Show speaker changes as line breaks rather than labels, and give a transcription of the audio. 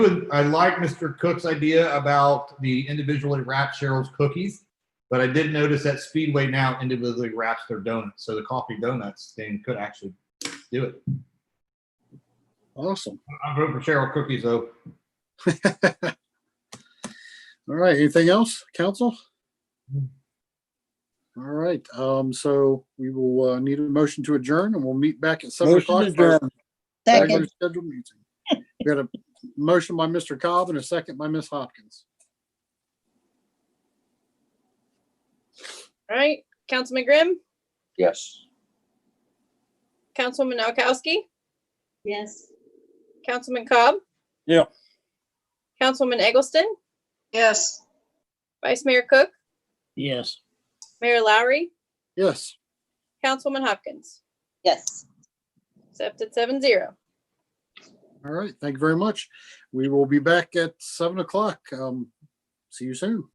I like Mr. Cook's idea about the individually wrapped Cheryl's cookies, but I did notice that Speedway now individually wraps their donuts, so the coffee donuts thing could actually do it.
Awesome.
I'm voting for Cheryl cookies though.
All right, anything else, council?
Mm.
All right, um, so we will, uh, need a motion to adjourn and we'll meet back at seven
Motion
o'clock.
to
for our
adjourn.
regular
Second,
scheduled meeting. We got a motion by Mr. Cobb and a second by Ms. Hopkins.
All right, Councilman Grimm,
Yes.
Councilwoman Noakowski,
yes.
Councilman Cobb.
Yeah.
Councilwoman Eggleston,
Yes.
Vice Mayor Cook,
Yes.
Mayor Lowry,
Yes,
Councilwoman Hopkins,
Yes.
accepted seven zero.
all right, thank you very much. We will be back at seven o'clock. Um, see you soon.